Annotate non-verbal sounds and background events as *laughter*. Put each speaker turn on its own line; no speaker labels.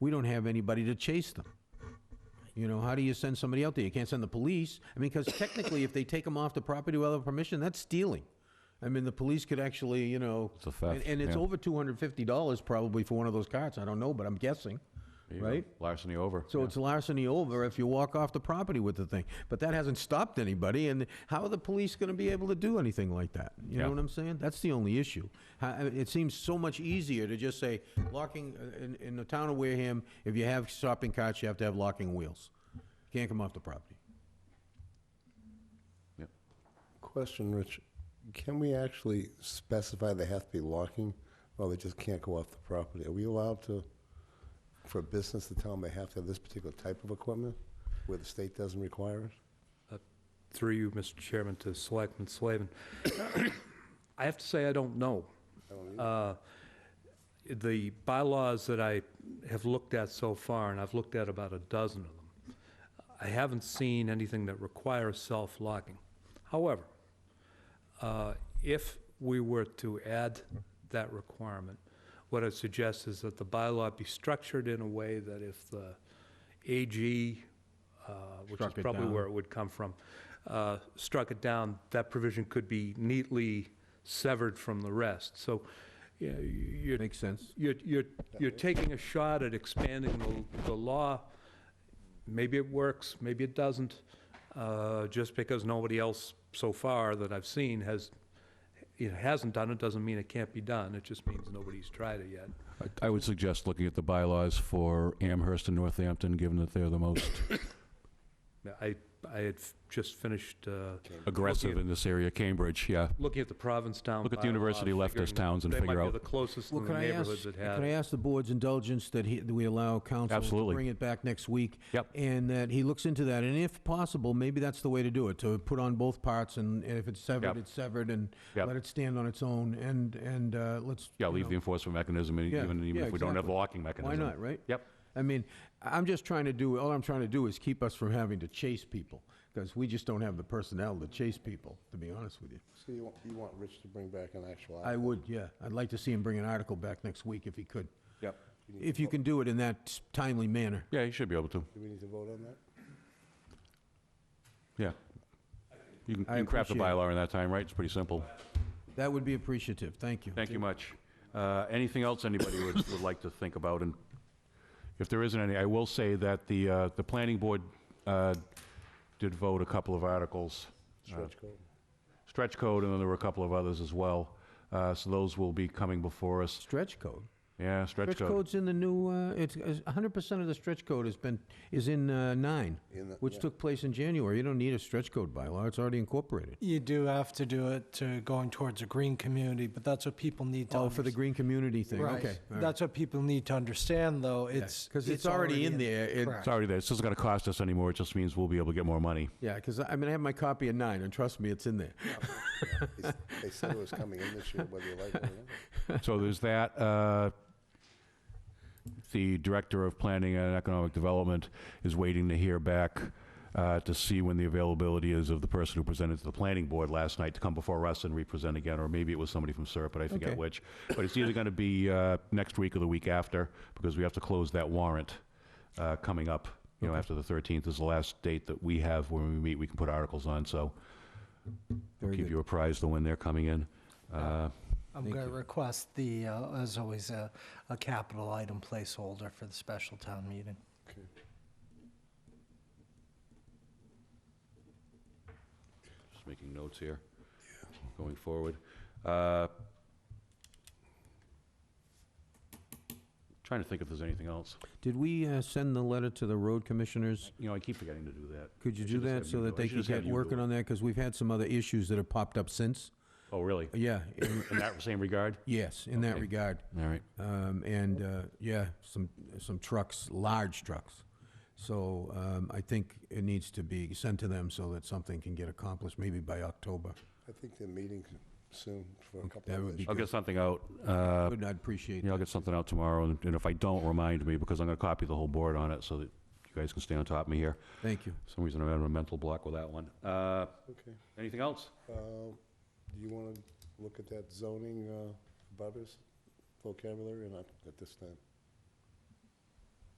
we don't have anybody to chase them. You know, how do you send somebody out there? You can't send the police. I mean, because technically, if they take them off the property without permission, that's stealing. I mean, the police could actually, you know.
It's a theft,
And, and it's
yeah.
over two hundred fifty dollars probably for one of those carts. I don't know, but I'm guessing,
There you go.
right?
Larceny over.
So
yeah.
it's larceny over if you walk off the property with the thing. But that hasn't stopped anybody, and how are the police going to be able to do anything like that? You know
Yeah.
what I'm saying? That's the only issue. How- I mean, It seems so much easier to just say, locking, uh, in, in the town of Wareham, if you have shopping carts, you have to have locking wheels. Can't come off the property.
Yep.
Question, Rich. Can we actually specify they have to be locking, or they just can't go off the property? Are we allowed to, for a business to tell them they have to have this particular type of equipment, where the state doesn't require it?
Through you, Mr. Chairman, to Selectman Slavin. *coughs* I have to say, I don't know. Uh, The bylaws that I have looked at so far, and I've looked at about a dozen of them, I haven't seen anything that requires self-locking. However, uh, if we were to add that requirement, what I suggest is that the bylaw be structured in a way that if the AG, uh, which is
Struck it
probably
down.
where it would come from, uh, struck it down, that provision could be neatly severed from the rest. So you know, you're
Makes sense?
you're, you're, you're taking a shot at expanding the, the law. Maybe it works, maybe it doesn't, uh, just because nobody else so far that I've seen has, it hasn't done it, doesn't mean it can't be done. It just means nobody's tried it yet.
I- I would suggest looking at the bylaws for Amherst and Northampton, given that they're the
*coughs*
most
I, I had f- just finished, uh,
aggressive
Looking at-
in this area, Cambridge, yeah.
looking at the Provincetown.
Look at the university
bylaw,
leftist
figuring-
towns and
They
figure
might be
out-
the closest
Well,
in the
can I
neighborhoods
ask,
that
can I
have.
ask the board's indulgence that he, that we allow council to
Absolutely.
bring it back next week?
Yep.
And that he looks into that, and if possible, maybe that's the way to do it, to put on both parts, and and if it's severed,
Yep.
it's severed, and
Yep.
let it stand on its own, and, and uh, let's.
Yeah,
you
leave
know,
the enforcement mechanism, in,
Yeah,
even even
yeah,
if we don't have the
exactly.
locking mechanism.
Why not, right?
Yep.
I mean, I- I'm just trying to do, all I'm trying to do is keep us from having to chase people, because we just don't have the personnel to chase people, to be honest with you.
So you want, you want Rich to bring back an actual
I
item?
would, yeah. I'd like to see him bring an article back next week if he could,
Yep.
if you can do it in that timely manner.
Yeah, you should be able to,
Do we need to vote on that?
yeah. You can- you
I
can craft a
appreciate it.
bylaw in that time, right? It's pretty simple.
That would be appreciative, thank you.
Thank you much. Uh, Anything else anybody would, would like to think about? And if there isn't any, I will say that the, uh, the planning board uh, did vote a couple of articles,
Uh,
Stretch code?
stretch code, and then there were a couple of others as well. Uh, So those will be coming before us.
Stretch code.
Yeah, stretch
Stretch
code.
code's in the new, uh, it's, is- 100% of the stretch code has been, is in uh, nine,
In the-
which
yeah.
took place in January. You don't need a stretch code bylaw, it's already incorporated.
You do have to do it to going towards a green community, but that's what people need to.
Oh, for the
understand.
green community thing, okay.
Right. That's what people need to understand, though. It's.
Because it's already in there. It-
Correct.
It's already there. This isn't going to cost us anymore. It just means we'll be able to get more money.
Yeah, because I I mean, I have my copy of nine, and trust me, it's in there.
They s- They said it was coming in this year, whether you like it or
*laughs*
not.
So there's that. uh, The Director of Planning and Economic Development is waiting to hear back uh, to see when the availability is of the person who presented to the Planning Board last night to come before us and re-present again, or maybe it was somebody from SERP, but I forget
Okay.
which. But it's either going to be uh, next week or the week after, because we have to close that warrant uh, coming up, you know, after the 13th is the last date that we have when we meet, we can put articles on, so
Very
keep
good.
you apprised of when they're coming in. Uh,
I'm going to request the, uh, as always, a, a capital item placeholder for the special town meeting.
Just making notes here, going forward. Uh, Trying to think if there's anything else.
Did we uh, send the letter to the road commissioners?
You know, I keep forgetting to do that.
Could you
I
do
should just
that
have
so
you
that
do it. I
they
should
could
just have
get
you do
working
it.
on that? Because we've had some other issues that have popped up since.
Oh, really?
Yeah, in-
In that same regard?
yes, in that
Okay.
regard.
All right.
Um, and, uh, yeah, some, some trucks, large trucks. So, um, I think it needs to be sent to them so that something can get accomplished, maybe by October.
I think they're meeting soon for a couple
That
of
would be
issues.
I'll get something out. uh,
Good, I'd appreciate
Yeah, I'll
that.
get something out tomorrow, and and if I don't, remind me, because I'm going to copy the whole board on it so that you guys can stay on top of me here.
Thank you.
For some reason, I'm having a mental block with that one. Uh,
Okay.
Anything else?
Um, Do you uh, want to look at that zoning, uh, butters vocabulary or not at this time?